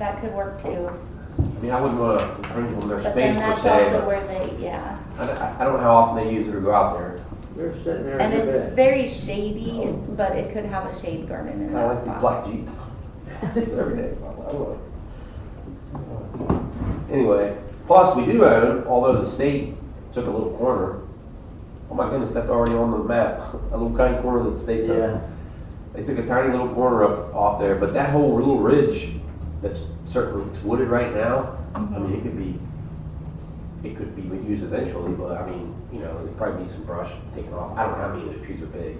That could work too. I mean, I wouldn't want to infringe on their But then space per that's se. also where they, yeah. I don't, I don't know how often they use it or go out there. They're sitting there in And the it's bed. very shady, it's, but it could have a shade garden in Kind that of Oh. like the spot. black Jeep. It's every day. I love it. Anyway, plus we do own, although the state took a little corner. Oh my goodness, that's already on the map. A little tiny corner that the state took. Yeah, They took a tiny little corner up off there, but that whole little ridge that's certainly it's wooded right now. I mean, it could be, it could be used eventually, but I mean, you know, there'd probably be some brush taken off. I don't know how many of those trees are big.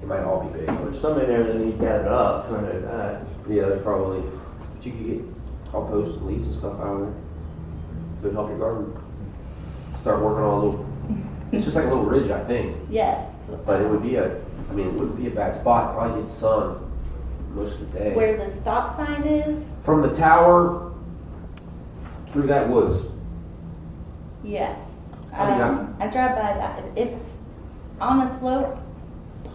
They might all be big. but- there's some in there that need gathered up, kind of, uh, Yeah, they probably. But you could get compost and leaves and stuff out of there. It would help your garden. Start working on a little. It's just like a little ridge, I think. Yes. But it would be a. I mean, it wouldn't be a bad spot. Probably get sun most of the day. Where the stop sign is, From the tower through that woods. yes. Oh, yeah. Um, I drive by that, it's on a slope,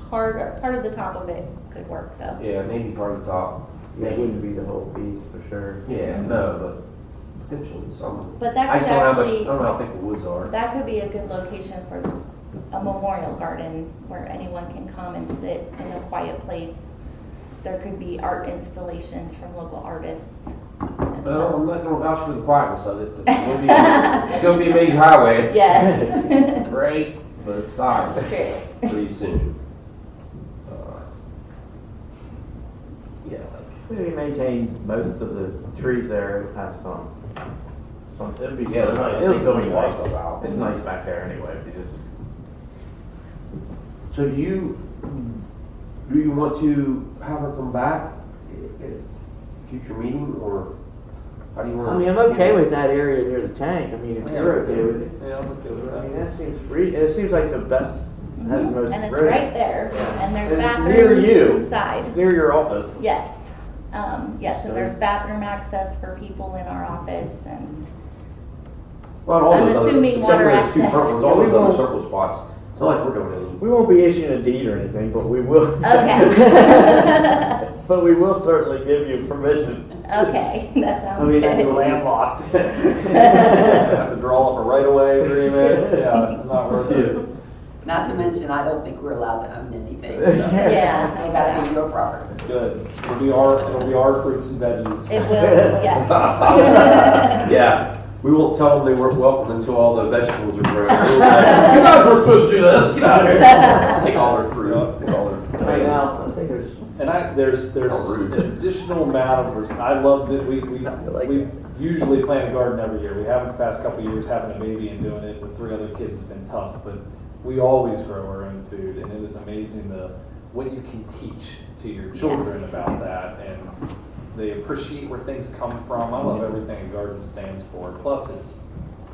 part, part of the top of it could work though. Yeah, maybe part of the top. that wouldn't be the whole piece for sure. Yeah, no, but potentially some. But I that just could don't know how much. I actually, don't know how thick the woods are. that could be a good location for a memorial garden where anyone can come and sit in a quiet place. There could be art installations from local artists as Well, well. I'm not gonna vouch for the quietness of it. 'cause It's gonna be, it's gonna be a major highway. Yes. right beside That's it true. pretty soon. Uh, Yeah, like, We maintain most of the trees there, have some, some, it'd be yeah, so they're not- nice. it'll still be It's nice. nice. about. It's nice back there anyway, if you just, So do you, do you want to have her come back at a future meeting, or how do you want? I mean, I'm okay with that area near the tank, I mean, if you're okay with it. Yeah, I'm okay with I mean, that. that seems free, it seems like the best, has the Mhm. most. And it's room. right there, Yeah. and there's And it's near you. bathrooms inside. It's near your office. Yes, um, yes, and Sorry. there's bathroom access for people in our office and, Well, all I'm those other, assuming except for water those two access. purples, Yeah, all we those other won't- circle spots, it's not like we're doing anything. We won't be issuing a deed or anything, but we will. Okay. But we will certainly give you permission. okay, that I sounds mean, good. that's landlocked. Have to draw up a right away agreement, yeah, it's not worth it. Not to mention, I don't think we're allowed to own anything. so Yeah. It's gotta be your property. Good. It'll be our, it'll be our fruits and veggies. It will, yes. Yeah, we won't tell them they weren't welcome until all the vegetables are grown. We'll be like, You guys were supposed to do this, get out of here. Take all their fruit, take all their Right tomatoes. now, I think there's, And I, there's, there's How rude. additional amount of, res- I loved it, we, we, like we usually plant a garden every year. We haven't the past couple of years, having a baby and doing it with three other kids has been tough, but we always grow our own food, and it is amazing the, what you can teach to your children Yes. about that, and they appreciate where things come from. I love everything a garden stands for, plus it's,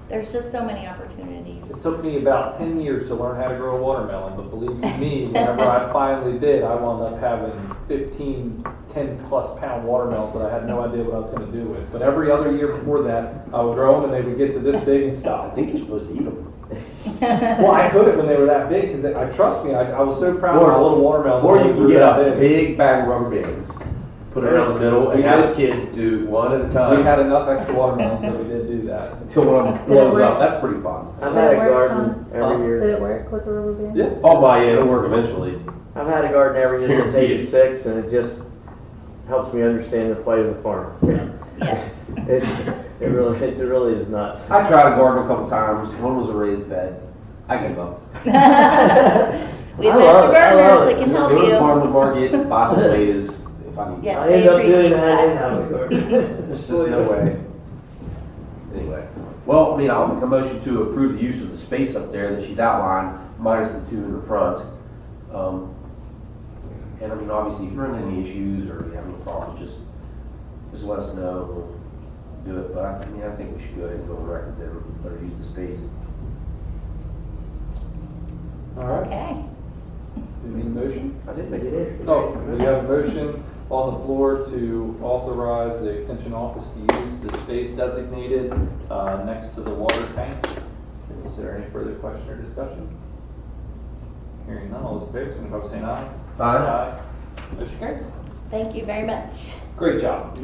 There's just so many opportunities. It took me about ten years to learn how to grow a watermelon, but believe you me, whenever I finally did, I wound up having 15, 10 plus pound watermelons that I had no idea what I was gonna do with. But every other year before that, I would grow them and they would get to this big and I stop. think you're supposed to eat them. Well, I couldn't when they were that big, cause I, trust me, I, I was so proud of my little watermelon. Or when you they can grew get that a big bag of rubber bands, put it around the middle, and We have the did. kids do one at a We time had enough extra watermelons that we did do that. until one of them blows up. That's pretty fun. I've had a Did it work, garden every Did year, it work with the rubber band? Yeah. Oh my, yeah, it'll work eventually. I've had a garden every year since Guaranteed. eighty-six, and it just helps me understand the plight of the farm. Yes. It's, it really, it really is nuts. I tried a garden a couple times. One was a raised bed. I gave up. We have love it, I love extra gardeners it. that can Just help go to the you. farmer's market, buy some potatoes if I need. Yes, I they end up appreciate doing that that. in-house garden. There's just no way. Anyway, well, I mean, I'll make a motion to approve the use of the space up there that she's outlined, minus the two in the front. Um, And I mean, obviously, if you're running any issues or you have any problems, just, just let us know, we'll do it. But I, I mean, I think we should go ahead and go on record there, let her use the space. All right, Okay. do you need a motion? I did make it. Oh, we have a motion on the floor to authorize the extension office to use the space designated uh, next to the water tank. Is there any further question or discussion? Hearing none, all those in favor, signify by saying aye. Aye. Motion carries. Thank you very much. Great job.